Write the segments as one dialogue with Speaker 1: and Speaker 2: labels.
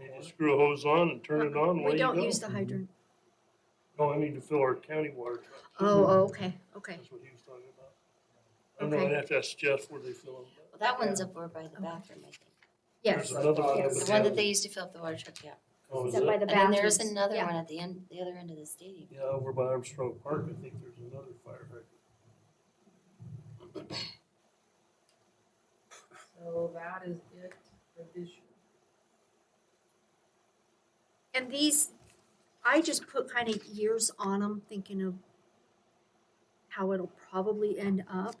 Speaker 1: You just screw a hose on and turn it on, away
Speaker 2: We
Speaker 1: you
Speaker 2: don't
Speaker 1: go.
Speaker 2: use the hydrant.
Speaker 1: No, I mean to fill our county water truck.
Speaker 2: Oh, oh, okay, okay.
Speaker 1: That's what he was talking about. I don't know, I'd
Speaker 2: Okay.
Speaker 1: have to ask Jeff where they fill them.
Speaker 3: Well, that one's up over by the bathroom, I think.
Speaker 1: There's
Speaker 2: Yes,
Speaker 1: another one.
Speaker 2: yes.
Speaker 1: over
Speaker 3: The one that
Speaker 1: there.
Speaker 3: they used to fill up the water truck, yeah.
Speaker 1: Oh, is
Speaker 2: Except by
Speaker 1: it?
Speaker 2: the
Speaker 3: And then there's
Speaker 2: bathrooms.
Speaker 3: another
Speaker 2: Yeah.
Speaker 3: one at the end, the other end of the stadium.
Speaker 1: Yeah, over by Armstrong Park, I think there's another fire hydrant.
Speaker 4: So that is it for this year.
Speaker 2: And these, I just put kind of years on them, thinking of how it'll probably end up.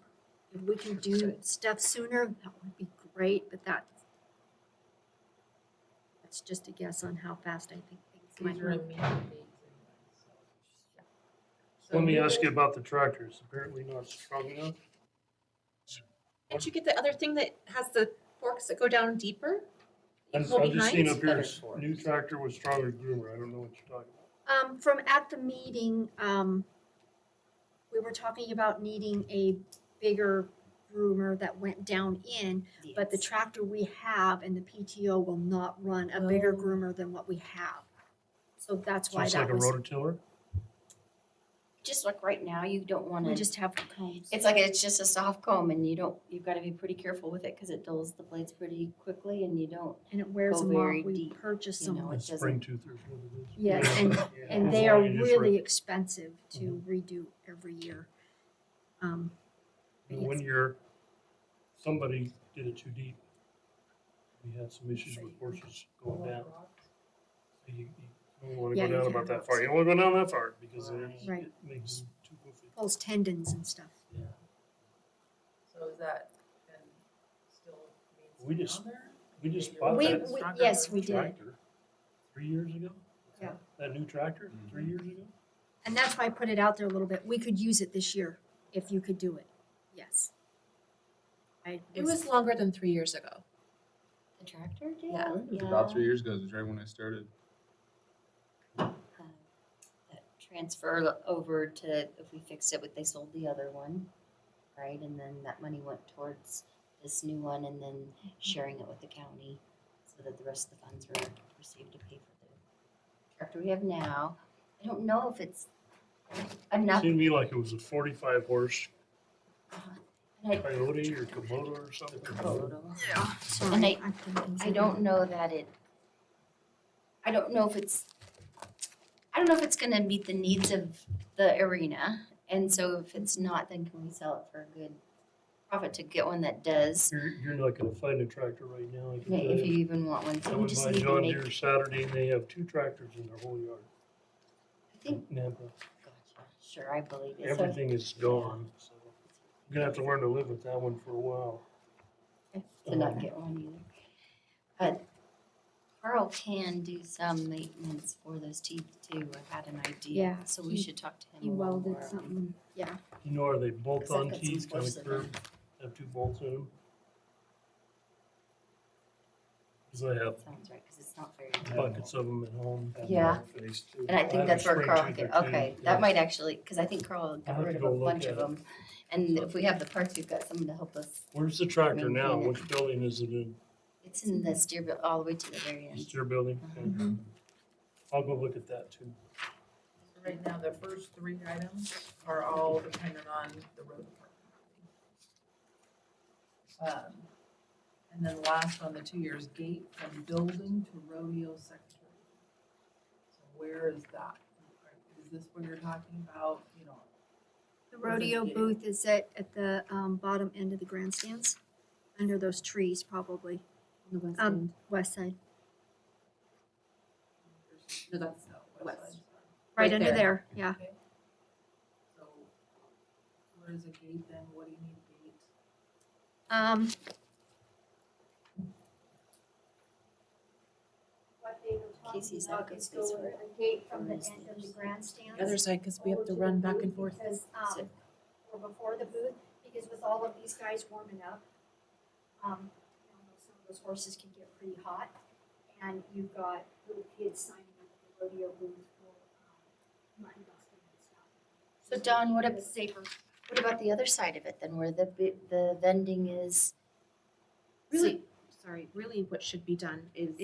Speaker 2: If we can do stuff sooner, that would be great, but that, that's just a guess on how fast I think things might
Speaker 4: These are
Speaker 2: run.
Speaker 4: immediate dates anyway, so. So
Speaker 1: Let me
Speaker 4: you
Speaker 1: ask
Speaker 4: guys-
Speaker 1: you about the tractors, apparently not strong enough.
Speaker 5: Didn't you get the other thing that has the forks that go down deeper?
Speaker 1: I'm,
Speaker 5: You go
Speaker 1: I'm just
Speaker 5: behind?
Speaker 1: seeing up here,
Speaker 4: Better
Speaker 1: s-
Speaker 4: for
Speaker 1: new
Speaker 4: us.
Speaker 1: tractor with stronger groomer, I don't know what you're talking about.
Speaker 2: Um, from at the meeting, um, we were talking about needing a bigger groomer that went down in, but the
Speaker 3: Yes.
Speaker 2: tractor we have and the PTO will not run a bigger
Speaker 5: Oh.
Speaker 2: groomer than what we have. So that's
Speaker 1: So
Speaker 2: why
Speaker 1: it's like
Speaker 2: that
Speaker 1: a
Speaker 2: was,
Speaker 1: rototiller?
Speaker 3: Just like right now, you don't
Speaker 2: we
Speaker 3: wanna,
Speaker 2: just have cones.
Speaker 3: it's like, it's just a soft comb and you don't, you've gotta be pretty careful with it, cause it dulls the blades pretty quickly and you don't,
Speaker 2: And it wears
Speaker 3: go
Speaker 2: them off,
Speaker 3: very
Speaker 2: we
Speaker 3: deep,
Speaker 2: purchased
Speaker 3: you
Speaker 2: them.
Speaker 3: know, it doesn't.
Speaker 1: Spring tooth or something.
Speaker 2: Yes, and- And
Speaker 1: As long
Speaker 2: they are
Speaker 1: as you just Mm-hmm. re-
Speaker 2: really expensive to redo every year. Um,
Speaker 1: And one year, somebody did it too deep. We had some issues with horses going down. You, you don't wanna
Speaker 2: Yeah,
Speaker 1: go
Speaker 2: you
Speaker 1: down
Speaker 2: can't
Speaker 1: about that
Speaker 2: have
Speaker 1: far, you don't wanna go down that far, because then
Speaker 2: Right.
Speaker 1: it makes too goofy.
Speaker 2: pulls tendons and stuff.
Speaker 4: So is that then still
Speaker 1: We
Speaker 4: means
Speaker 1: just-
Speaker 4: down there?
Speaker 1: We just
Speaker 4: We-
Speaker 1: bought
Speaker 2: We,
Speaker 1: that
Speaker 4: That's
Speaker 2: we,
Speaker 4: stronger
Speaker 2: yes,
Speaker 4: than
Speaker 2: we did.
Speaker 1: tractor three years ago.
Speaker 2: Yeah.
Speaker 1: That new tractor, three years ago.
Speaker 2: And that's why I put it out there a little bit. We could use it this year if you could do it. Yes. I
Speaker 5: It was longer than three years ago.
Speaker 3: the tractor did?
Speaker 5: Yeah.
Speaker 6: It was about three years ago, it was right when I started.
Speaker 3: uh, that transfer over to, if we fixed it, but they sold the other one, right? And then that money went towards this new one and then sharing it with the county so that the rest of the funds were received to pay for the tractor we have now. I don't know if it's enough.
Speaker 1: Seemed to me like it was a forty-five horse
Speaker 3: I
Speaker 1: coyote or Kubota or something.
Speaker 2: Sorry,
Speaker 3: and I-
Speaker 2: I've done things
Speaker 3: I don't know that it, I don't know if it's, I don't know if it's gonna meet the needs of the arena. And so if it's not, then can we sell it for a good profit to get one that does?
Speaker 1: You're, you're not gonna find a tractor right now, I can tell
Speaker 3: If you
Speaker 1: you.
Speaker 3: even want one,
Speaker 1: I
Speaker 3: so we
Speaker 1: went
Speaker 3: just
Speaker 1: by
Speaker 3: need to
Speaker 1: John
Speaker 3: make,
Speaker 1: Deere Saturday and they have two tractors in their whole yard.
Speaker 3: I think,
Speaker 1: Napa.
Speaker 3: gotcha, sure, I believe it. So-
Speaker 1: Everything is gone, so you're gonna have to learn to live with that one for a while.
Speaker 3: to not get one either. But Carl can do some maintenance for those teeth too, I had an idea.
Speaker 2: Yeah,
Speaker 3: So we
Speaker 2: he-
Speaker 3: should talk to him
Speaker 2: He
Speaker 3: a little more.
Speaker 2: welded something, yeah.
Speaker 1: You know, are they bolt-on
Speaker 3: Except it's
Speaker 1: teeth, kind
Speaker 3: worse
Speaker 1: of
Speaker 3: than
Speaker 1: curved, have two bolts in them? Cause I have
Speaker 3: Sounds right, cause it's not very.
Speaker 1: buckets of them at home.
Speaker 3: Yeah. And I think that's where Carl,
Speaker 1: can.
Speaker 3: can- okay, that might actually, because I think Carl
Speaker 1: I'll
Speaker 3: got
Speaker 1: have
Speaker 3: rid
Speaker 1: to
Speaker 3: of
Speaker 1: go
Speaker 3: a
Speaker 1: look
Speaker 3: bunch
Speaker 1: at
Speaker 3: of
Speaker 1: it.
Speaker 3: them. And if we have the parts, we've got someone to help us.
Speaker 1: Where's the tractor now?
Speaker 3: Maintain it.
Speaker 1: Which building is it in?
Speaker 3: It's in the steer, bu- all the way to the very end.
Speaker 1: It's your building? Okay. I'll go look at that too.
Speaker 4: So Right now, the first three items are all dependent on the road department. Um, And then last on the two years, gate from building to rodeo secretary. So where is that? Is this what you're talking about, you know?
Speaker 2: The rodeo booth is at, at the, um, bottom end of the grandstands, under those trees probably, um, west side,
Speaker 4: No, that's west.
Speaker 5: West.
Speaker 4: side.
Speaker 2: right
Speaker 5: Right
Speaker 2: under
Speaker 5: there.
Speaker 2: there, yeah.
Speaker 4: Okay. So where is a gate then? What do you need a gate?
Speaker 2: Um, what they were
Speaker 3: Casey's had a good space for it.
Speaker 2: a gate
Speaker 3: from the end of the
Speaker 2: grandstands.
Speaker 5: The other side, because we have
Speaker 2: over
Speaker 5: to
Speaker 2: the
Speaker 5: run back
Speaker 2: booth
Speaker 5: and forth.
Speaker 2: Because,
Speaker 3: So-
Speaker 2: um, or before the booth, because with all of these guys warming up, um, you know, some of those horses can get pretty hot. And you've got little kids signing up at the rodeo booth for, um, mutton busting and stuff.
Speaker 3: So Don, what about safer? What about the other side of it then, where the, bi- the vending is?
Speaker 5: Really, sorry, really what should be done is